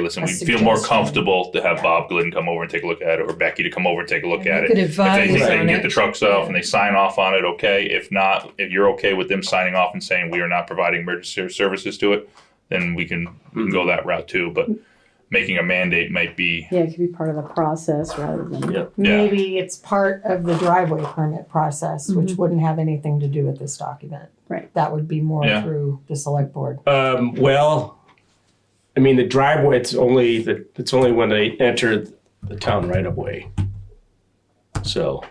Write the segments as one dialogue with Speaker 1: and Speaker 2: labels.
Speaker 1: listen,
Speaker 2: A
Speaker 1: we feel more
Speaker 2: suggestion.
Speaker 1: comfortable to have
Speaker 2: Yeah.
Speaker 1: Bob Glidden come over and take a look at it, or Becky to come over and take a look
Speaker 2: You
Speaker 1: at it.
Speaker 2: could
Speaker 1: If they think they
Speaker 2: advise
Speaker 1: can
Speaker 2: on
Speaker 1: get
Speaker 2: it.
Speaker 1: the trucks off and they sign off on it, okay. If not, if you're okay with them signing off and saying we are not providing emergency services to it, then we can, we can go that route too, but making a mandate might be,
Speaker 3: Yeah, it could be part of the process rather than.
Speaker 4: Yeah.
Speaker 1: yeah,
Speaker 2: Maybe it's part of the driveway permit process, which wouldn't have anything to do with this document.
Speaker 3: Right.
Speaker 2: That would be more
Speaker 1: Yeah.
Speaker 2: through the select board.
Speaker 4: Um, well, I mean, the driveway, it's only, the it's only when they enter the town right of way. So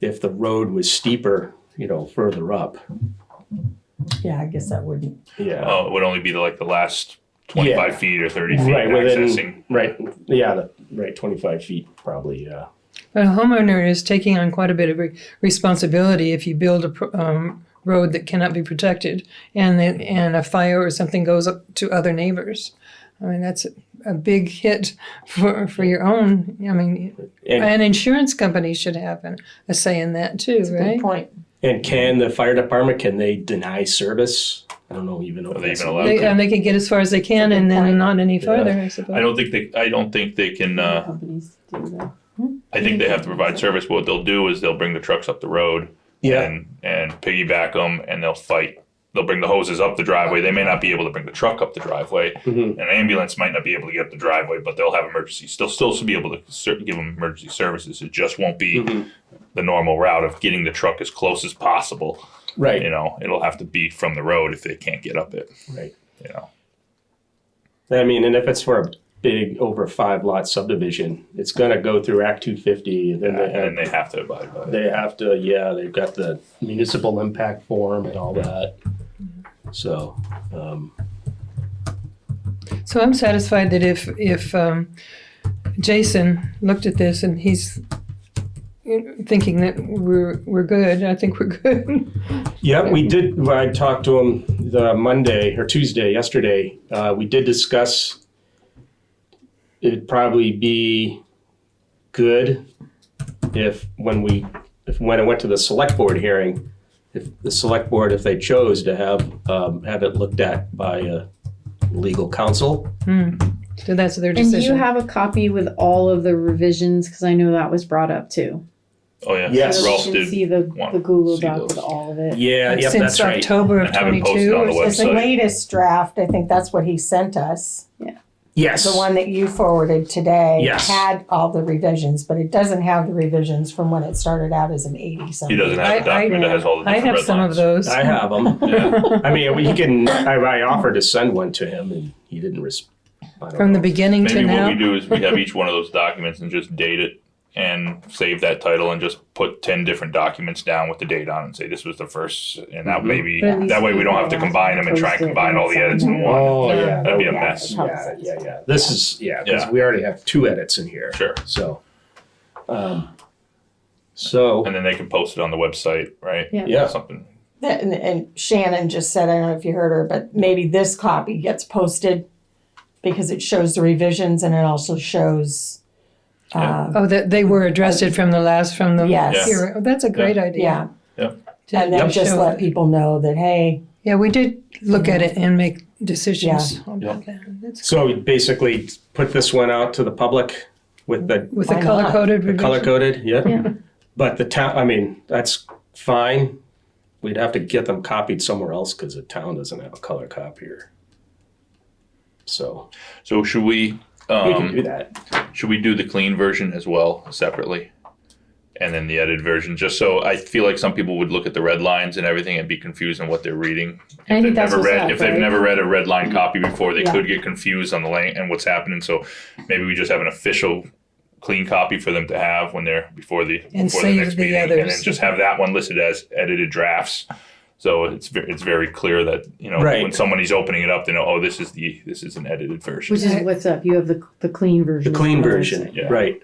Speaker 4: if the road was steeper, you know, further up,
Speaker 2: Yeah, I guess that wouldn't.
Speaker 4: yeah.
Speaker 1: oh, it would only be the, like the last twenty-five feet or thirty feet
Speaker 4: Right,
Speaker 1: accessing.
Speaker 4: within, right, yeah, the- right, twenty-five feet probably, yeah.
Speaker 5: But a homeowner is taking on quite a bit of re- responsibility if you build a pr- um, road that cannot be protected and the, and a fire or something goes up to other neighbors. I mean, that's a, a big hit for, for your own. I mean,
Speaker 4: And,
Speaker 5: an insurance company should have an, a say in that too, right?
Speaker 2: Good point.
Speaker 4: and can the fire department, can they deny service? I don't know even. if
Speaker 1: Are they
Speaker 4: that's-
Speaker 1: even allowed
Speaker 5: They,
Speaker 1: to?
Speaker 5: and they can get as far as they can and then not any further, I suppose.
Speaker 1: I don't think they, I don't think they can,
Speaker 3: other
Speaker 1: uh,
Speaker 3: Companies do that.
Speaker 1: I think they have to provide service. What they'll do is they'll bring the trucks up the road
Speaker 4: Yeah,
Speaker 1: and and piggyback them, and they'll fight. They'll bring the hoses up the driveway. They may not be able to bring the truck up the driveway.
Speaker 4: Mhm.
Speaker 1: An ambulance might not be able to get up the driveway, but they'll have emergency. They'll still be able to ser- give them emergency services. It just won't be
Speaker 4: Mhm.
Speaker 1: the normal route of getting the truck as close as possible. You
Speaker 4: right,
Speaker 1: know, it'll have to be from the road if they can't get up it.
Speaker 4: right.
Speaker 1: You know,
Speaker 4: I mean, and if it's for a big over five lot subdivision, it's gonna go through Act two fifty, and then
Speaker 1: and,
Speaker 4: they
Speaker 1: and
Speaker 4: have,
Speaker 1: they have to abide by it.
Speaker 4: they have to, yeah, they've got the municipal impact form and all that. So, um,
Speaker 5: So I'm satisfied that if, if um, Jason looked at this and he's you know, thinking that we're, we're good, I think we're good.
Speaker 4: yeah, we did, I talked to him the Monday or Tuesday, yesterday, uh, we did discuss it'd probably be good if when we, if when it went to the select board hearing, if the select board, if they chose to have, um, have it looked at by a legal counsel.
Speaker 5: So that's their
Speaker 3: And do you
Speaker 5: decision.
Speaker 3: have a copy with all of the revisions? Cause I know that was brought up too.
Speaker 1: Oh yeah,
Speaker 4: Yes.
Speaker 3: So
Speaker 1: Ralph
Speaker 3: that we can
Speaker 1: did
Speaker 3: see the,
Speaker 1: want
Speaker 3: the Google
Speaker 1: to see
Speaker 3: Doc
Speaker 1: those.
Speaker 3: with all of it.
Speaker 4: Yeah, yep,
Speaker 5: Since
Speaker 4: that's right.
Speaker 5: October of
Speaker 1: And have it posted
Speaker 5: twenty-two.
Speaker 1: on the
Speaker 5: or
Speaker 1: web.
Speaker 2: It's the
Speaker 1: Website.
Speaker 2: latest draft, I think that's what he sent us.
Speaker 4: Yes.
Speaker 2: The one that you forwarded today.
Speaker 4: Yes.
Speaker 2: Had all the revisions, but it doesn't have the revisions from when it started out as an eighty
Speaker 1: He
Speaker 2: something.
Speaker 1: doesn't have a
Speaker 5: I- I-
Speaker 1: document that has all the
Speaker 5: I
Speaker 1: different
Speaker 5: have
Speaker 1: red
Speaker 5: some of
Speaker 1: lines.
Speaker 5: those.
Speaker 4: I have them.
Speaker 1: Yeah.
Speaker 4: I mean, we can, I, I offered to send one to him and he didn't respond.
Speaker 5: From the beginning to
Speaker 1: Maybe what we
Speaker 5: now.
Speaker 1: do is we have each one of those documents and just date it and save that title and just put ten different documents down with the date on it and say this was the first and that
Speaker 4: Mhm.
Speaker 1: maybe
Speaker 3: But at least
Speaker 1: that way we don't have to
Speaker 3: people
Speaker 1: combine them and try and
Speaker 3: post it
Speaker 1: combine all the edits in
Speaker 3: somewhere.
Speaker 1: one.
Speaker 4: Oh, yeah.
Speaker 1: That'd be a
Speaker 4: yeah,
Speaker 1: mess.
Speaker 4: Yeah, yeah, yeah. This is, yeah, because we already have two edits in here.
Speaker 1: Sure.
Speaker 4: So, um, so,
Speaker 1: And then they can post it on the website, right?
Speaker 3: Yeah.
Speaker 4: yeah,
Speaker 1: Something.
Speaker 2: And, and Shannon just said, I don't know if you heard her, but maybe this copy gets posted because it shows the revisions and it also shows.
Speaker 1: Yeah.
Speaker 2: uh,
Speaker 5: Oh, that they were addressed it from the last, from the.
Speaker 2: Yes.
Speaker 5: here. Oh, That's a great idea.
Speaker 2: Yeah,
Speaker 5: to-
Speaker 2: and
Speaker 5: to
Speaker 2: then just
Speaker 5: show
Speaker 2: let
Speaker 5: that.
Speaker 2: people know that, hey,
Speaker 5: Yeah, we did look at it and make decisions about that. That's-
Speaker 4: so we basically put this one out to the public with the
Speaker 5: With the
Speaker 2: Why not?
Speaker 5: color-coded
Speaker 4: The color
Speaker 5: revision.
Speaker 4: coded, yeah.
Speaker 3: Yeah.
Speaker 4: But the town, I mean, that's fine. We'd have to get them copied somewhere else because the town doesn't have a color copier. So
Speaker 1: So should we
Speaker 4: we can do
Speaker 1: um,
Speaker 4: that.
Speaker 1: should we do the clean version as well separately? And then the edited version, just so I feel like some people would look at the red lines and everything and be confused on what they're reading.
Speaker 3: I
Speaker 1: If
Speaker 3: think
Speaker 1: they've
Speaker 3: that's
Speaker 1: never
Speaker 3: what's
Speaker 1: read,
Speaker 3: up,
Speaker 1: if they've
Speaker 3: right?
Speaker 1: never read a red line copy before, they
Speaker 3: Yeah.
Speaker 1: could get confused on the lane and what's happening. So maybe we just have an official clean copy for them to have when they're before the
Speaker 5: And
Speaker 1: before
Speaker 5: save
Speaker 1: the next
Speaker 5: the
Speaker 1: meeting, and then
Speaker 5: others.
Speaker 1: just have that one listed as edited drafts. So it's ve- it's very clear that you know
Speaker 4: Right.
Speaker 1: when somebody's opening it up, they know oh this is the this is an edited version.
Speaker 3: Which is what's up. You have the, the clean
Speaker 4: The
Speaker 3: version.
Speaker 4: clean
Speaker 3: on the
Speaker 4: version,
Speaker 3: website.
Speaker 1: Yeah.
Speaker 4: right?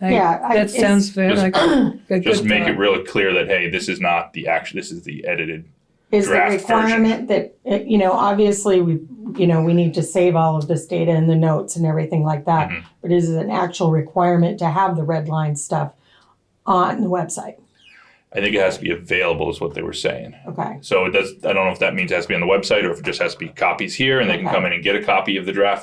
Speaker 5: I-
Speaker 2: Yeah, I-
Speaker 5: That
Speaker 2: it's-
Speaker 5: sounds very
Speaker 1: Just-
Speaker 5: like a good
Speaker 1: Just make it
Speaker 5: thought.
Speaker 1: really clear that hey, this is not the action. This is the edited.
Speaker 2: is the
Speaker 1: Draft version.
Speaker 2: requirement that, uh, you know, obviously, we, you know, we need to save all of this data in the notes and everything like that.
Speaker 1: Mhm.
Speaker 2: But is it an actual requirement to have the red line stuff on the website?
Speaker 1: I think it has to be available, is what they were saying.
Speaker 2: Okay,
Speaker 5: Uh-huh.
Speaker 1: So it does. I don't know if that means it has to be on the website or if it just has to be copies here, and they can come in and get a copy of the draft